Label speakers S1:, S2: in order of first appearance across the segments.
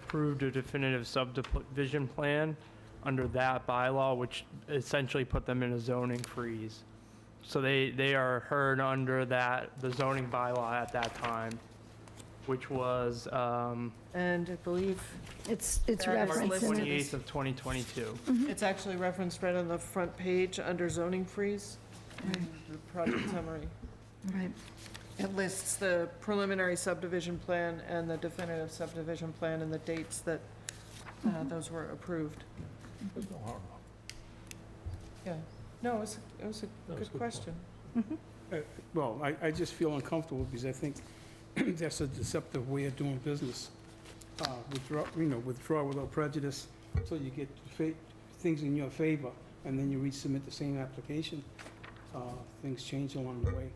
S1: approved a definitive subdivision plan under that bylaw, which essentially put them in a zoning freeze. So they, they are heard under that, the zoning bylaw at that time, which was, um,
S2: And I believe
S3: It's, it's
S2: That
S1: March
S2: is
S3: referenced in
S2: listed.
S3: it.
S1: 28th of 2022.
S4: Oh,
S2: it's actually referenced right on the front page under zoning freeze, the project summary.
S3: Right.
S2: It lists the preliminary subdivision plan and the definitive subdivision plan and the dates that uh, those were approved. Yeah, no, it was, it was a
S4: was a
S2: good
S4: good
S2: question.
S4: Uh, Well, I, I just feel uncomfortable because I think that's a deceptive way of doing business. Uh, Withdraw, you know, withdraw without prejudice until you get fa- things in your favor, and then you resubmit the same application. Uh, Things change along the way.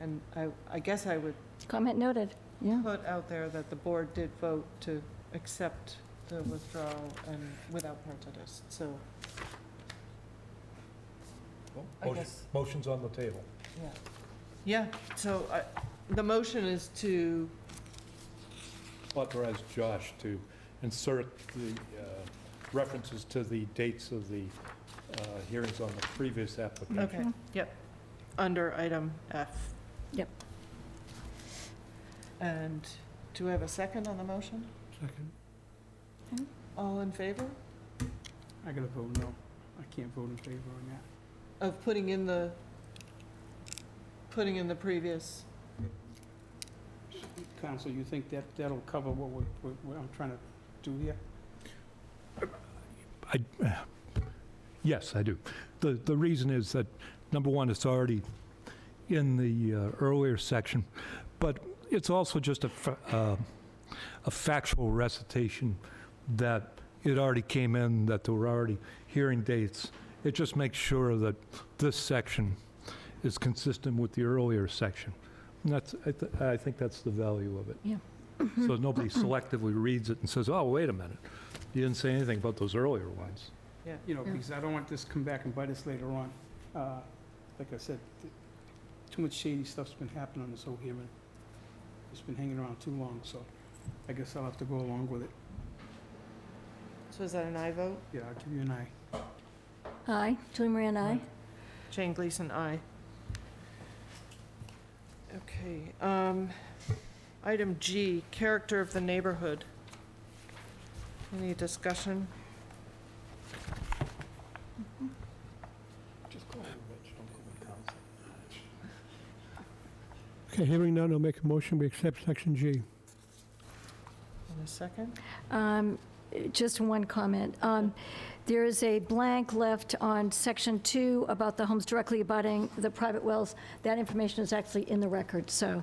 S2: And I, I guess I would
S3: Comment noted, yeah.
S2: put out there that the board did vote to accept the withdrawal and without prejudice, so,
S5: Well,
S2: I
S5: motion-
S2: guess.
S5: Motion's on the table.
S2: yeah. Yeah, so I, the motion is to,
S5: Authorize Josh to insert the uh, references to the dates of the uh, hearings on the previous application.
S2: okay, yep, under item F.
S3: Yep.
S2: And do we have a second on the motion?
S4: Second.
S2: All in favor
S4: I gotta vote no. I can't vote in favor on that.
S2: of putting in the, putting in the previous?
S4: Counsel, you think that, that'll cover what we're, what we're- I'm trying to do here?
S6: I, yes, I do. The, the reason is that, number one, it's already in the uh, earlier section, but it's also just a, fa- uh, a factual recitation that it already came in, that there were already hearing dates. It just makes sure that this section is consistent with the earlier section. And that's, I, th- I think that's the value of it.
S3: Yeah. Mm-hmm.
S6: So nobody selectively reads it and says, oh, wait a minute, you didn't say anything about those earlier ones.
S4: you know,
S3: Yeah.
S4: because I don't want this to come back and bite us later on. Uh, Like I said, th- too much shady stuff's been happening on this whole hearing. It's been hanging around too long, so I guess I'll have to go along with it.
S2: So is that an aye vote?
S4: Yeah, I'll give you an aye.
S3: Aye, Julie Moran, aye.
S2: Jane Gleason, aye. Okay, um, item G, character of the neighborhood. Any discussion?
S5: Just call him Rich, don't call him Council.
S7: Okay, hearing none, I'll make a motion, we accept section G.
S2: In a second?
S3: Um, Just one comment. Um, There is a blank left on section two about the homes directly abutting the private wells. That information is actually in the record, so
S2: Yeah,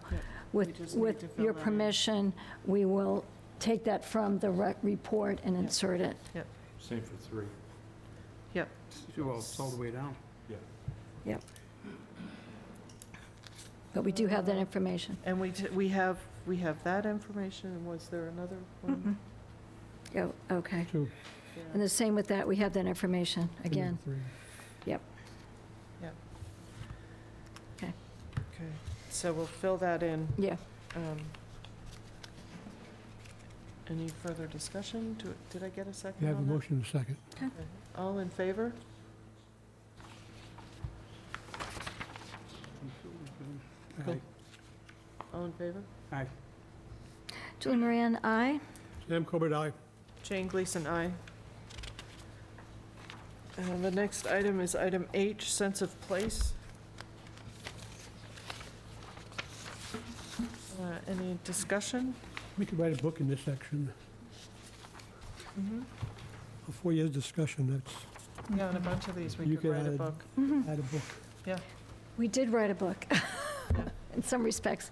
S2: we
S3: with,
S2: just need
S3: with
S2: to fill
S3: your
S2: that in.
S3: permission, we will take that from the rec- report and
S2: Yeah.
S3: insert it.
S5: Same for three.
S4: Well, it's all the way down.
S3: But we do have that information.
S2: And we, t- we have, we have that information, and was there another one?
S3: Oh, okay.
S7: Two,
S2: Yeah.
S3: Mm-hmm. And the same with that, we have that information,
S7: two,
S3: again.
S7: three.
S2: Okay, so we'll fill that in.
S3: Yeah.
S2: Um, Any further discussion? Do- Did I get a second
S7: You have a
S2: on that?
S7: motion, and a second.
S2: All in favor?
S4: Aye.
S2: All in favor?
S4: Aye.
S3: Julie Moran, aye.
S7: Sam Corbett, aye.
S2: Jane Gleason, aye. Uh, The next item is item H, sense of place. Uh, Any discussion?
S7: We could write a book in this section,
S2: Mm-hmm.
S7: a four years discussion, that's,
S2: Yeah, on a bunch of these, we
S7: You
S2: could
S7: could
S2: write a
S7: add-
S2: book.
S7: add a book.
S3: We did write a book, in some respects.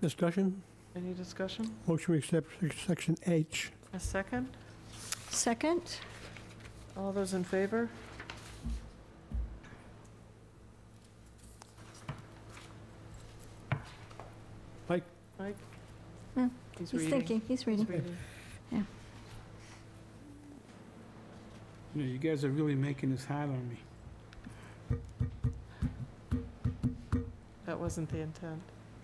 S7: Discussion,
S2: Any discussion?
S7: motion, we accept sec- section H.
S2: A second?
S3: Second?
S2: All those in favor?
S7: Mike?
S2: Mike?
S3: Hmm,
S2: He's
S3: He's
S2: reading.
S3: thinking, he's
S2: He's
S3: reading.
S2: reading.
S4: You know, you guys are really making this hard on me.
S2: At that wasn't the intent.